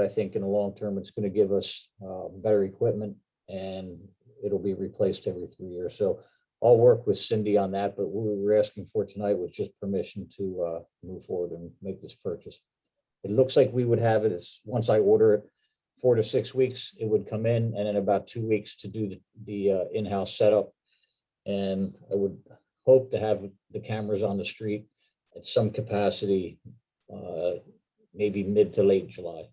I think in the long term, it's going to give us uh, better equipment and it'll be replaced every three years. So I'll work with Cindy on that, but what we were asking for tonight was just permission to uh, move forward and make this purchase. It looks like we would have it, it's, once I order it, four to six weeks, it would come in and in about two weeks to do the- the uh, in-house setup. And I would hope to have the cameras on the street at some capacity, uh, maybe mid to late July.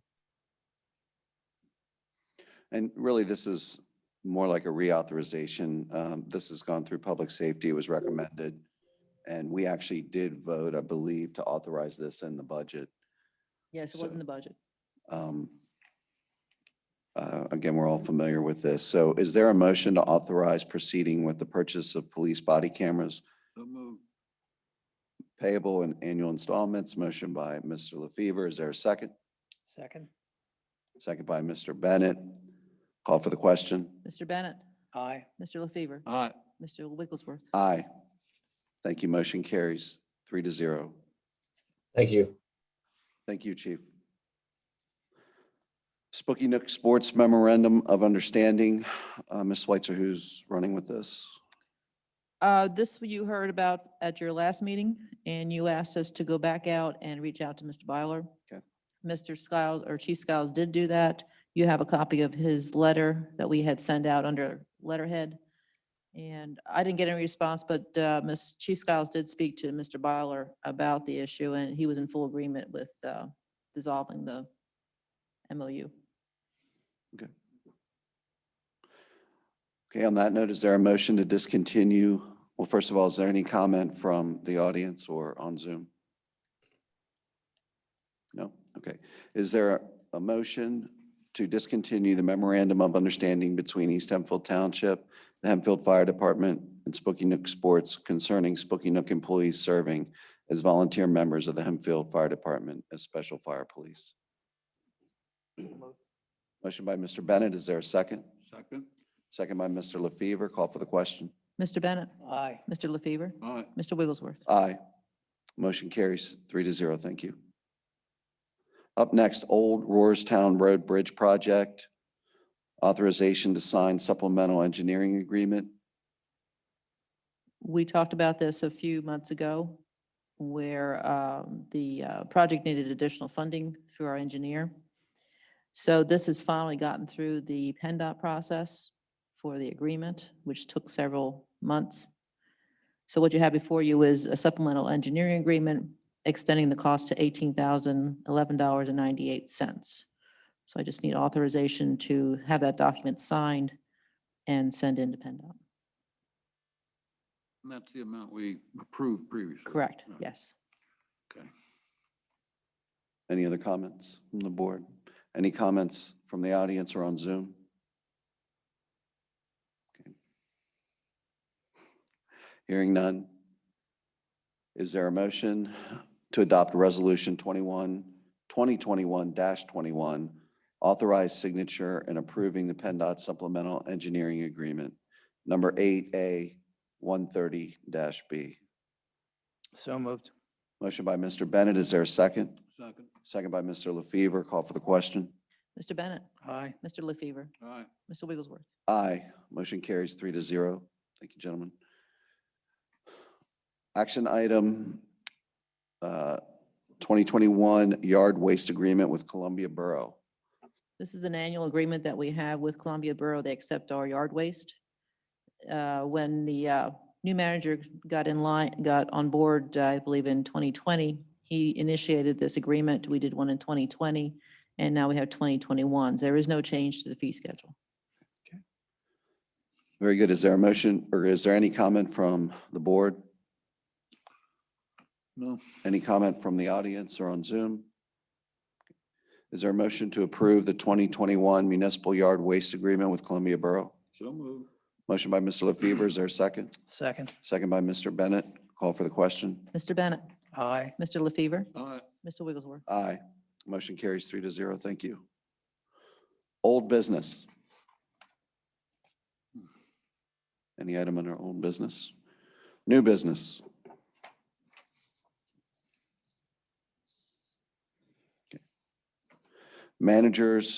And really, this is more like a reauthorization. Um, This has gone through public safety, it was recommended. And we actually did vote, I believe, to authorize this in the budget. Yes, it So- was in the budget. Um, uh, Again, we're all familiar with this. So is there a motion to authorize proceeding with the purchase of police body cameras payable in annual installments? Motion by Mr. LaFever. Is there a second? Second. Second by Mr. Bennett. Call for the question. Mr. Bennett, Aye. Mr. LaFever, Aye. Mr. Wigglesworth. Aye. Thank you. Motion carries three to zero. Thank you. Thank you, Chief. Spooky Nook Sports Memorandum of Understanding. Uh, Ms. Switzer, who's running with this? Uh, This you heard about at your last meeting, and you asked us to go back out and reach out to Mr. Byler. Okay. Mr. Skiles, or Chief Skiles did do that. You have a copy of his letter that we had sent out under letterhead. And I didn't get any response, but uh, Ms. Chief Skiles did speak to Mr. Byler about the issue, and he was in full agreement with uh, dissolving the MOU. Okay, on that note, is there a motion to discontinue? Well, first of all, is there any comment from the audience or on Zoom? No? Okay. Is there a motion to discontinue the memorandum of understanding between East Hempfield Township, the Hempfield Fire Department, and Spooky Nook Sports concerning Spooky Nook employees serving as volunteer members of the Hempfield Fire Department as special fire police? Motion by Mr. Bennett. Is there a second? Second. Second by Mr. LaFever. Call for the question. Mr. Bennett, Aye. Mr. LaFever, Aye. Mr. Wigglesworth. Aye. Motion carries three to zero. Thank you. Up next, Old Roarstown Road Bridge Project. Authorization to sign supplemental engineering agreement. We talked about this a few months ago where um, the uh, project needed additional funding through our engineer. So this has finally gotten through the PennDOT process for the agreement, which took several months. So what you have before you is a supplemental engineering agreement extending the cost to eighteen thousand eleven dollars and ninety-eight cents. So I just need authorization to have that document signed and send in to PennDOT. And that's the amount we approved previously. Correct, Right. yes. Okay. Any other comments from the board? Any comments from the audience or on Zoom? Okay. Hearing none. Is there a motion to adopt Resolution 21, 2021-21, authorize signature and approving the PennDOT supplemental engineering agreement, number 8A 130-B? So moved. Motion by Mr. Bennett. Is there a second? Second. Second by Mr. LaFever. Call for the question. Mr. Bennett, Aye. Mr. LaFever, Aye. Mr. Wigglesworth. Aye. Motion carries three to zero. Thank you, gentlemen. Action item uh, 2021 Yard Waste Agreement with Columbia Borough. This is an annual agreement that we have with Columbia Borough. They accept our yard waste. Uh, When the uh, new manager got in line, got on board, uh, I believe in 2020, he initiated this agreement. We did one in 2020, and now we have 2021. There is no change to the fee schedule. Very good. Is there a motion or is there any comment from the board? No. Any comment from the audience or on Zoom? Is there a motion to approve the 2021 Municipal Yard Waste Agreement with Columbia Borough? So moved. Motion by Mr. LaFever. Is there a second? Second. Second by Mr. Bennett. Call for the question. Mr. Bennett, Aye. Mr. LaFever, Aye. Mr. Wigglesworth. Aye. Motion carries three to zero. Thank you. Old business. Any item under old business? New business? Okay. managers